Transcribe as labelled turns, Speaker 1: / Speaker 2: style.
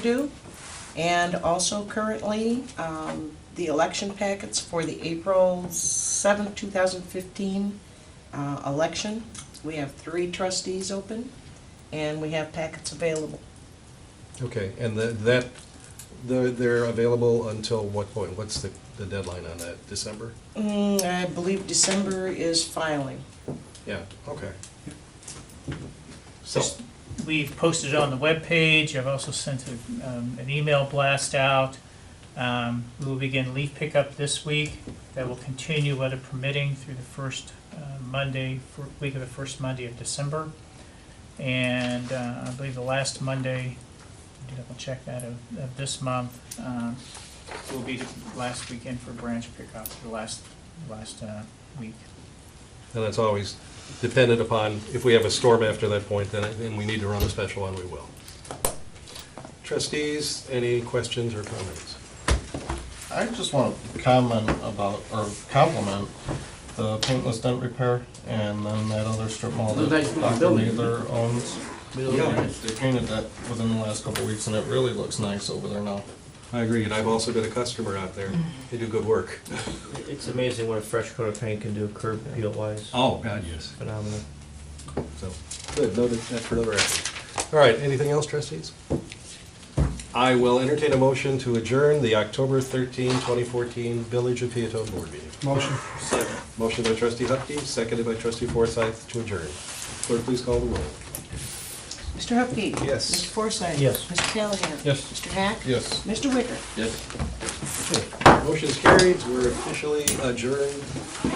Speaker 1: due, and also currently, um, the election packets for the April seventh, two thousand fifteen, uh, election. We have three trustees open, and we have packets available.
Speaker 2: Okay, and the- that, they're, they're available until what point? What's the, the deadline on that? December?
Speaker 1: Mm, I believe December is filing.
Speaker 2: Yeah, okay. So,
Speaker 3: Just- We've posted it on the webpage, I've also sent a, um, an email blast out. Um, we will begin leaf pickup this week, that will continue weather permitting through the first, uh, Monday, fir- week of the first Monday of December. And, uh, I believe the last Monday, I did double check that, of, of this month, um, will be the last weekend for branch pickup, the last, last, uh, week.
Speaker 2: and that's always dependent upon, if we have a storm after that point, then, then we need to run a special one, we will. Trustees, any questions or comments?
Speaker 4: I just want to comment about, or compliment the paintless dent repair and then that other strip mall
Speaker 5: Those nice
Speaker 4: that
Speaker 5: little
Speaker 4: Dr.
Speaker 5: buildings.
Speaker 4: Mather owns.
Speaker 2: Yeah.
Speaker 4: They painted that within the last couple of weeks and it really looks nice over there now.
Speaker 2: I agree, and I've also been a customer out there. They do good work.
Speaker 5: It's amazing what a fresh coat of paint can do curb appeal wise.
Speaker 2: Oh, God, yes.
Speaker 5: Phenomenal.
Speaker 2: So, good, noted, that's for the record. All right, anything else, trustees? I will entertain a motion to adjourn the October 13, 2014 Village of Peatone Board meeting.
Speaker 4: Motion.
Speaker 2: Motion by trustee Hupkey, seconded by trustee Forsythe to adjourn. Clerk, please call the roll.
Speaker 1: Mr. Hupkey.
Speaker 2: Yes.
Speaker 1: Mr. Forsythe.
Speaker 5: Yes.
Speaker 1: Mr. Callahan.
Speaker 4: Yes.
Speaker 1: Mr. Hack.
Speaker 4: Yes.
Speaker 1: Mr. Wicker.
Speaker 2: Motion's carried, we're officially adjourned at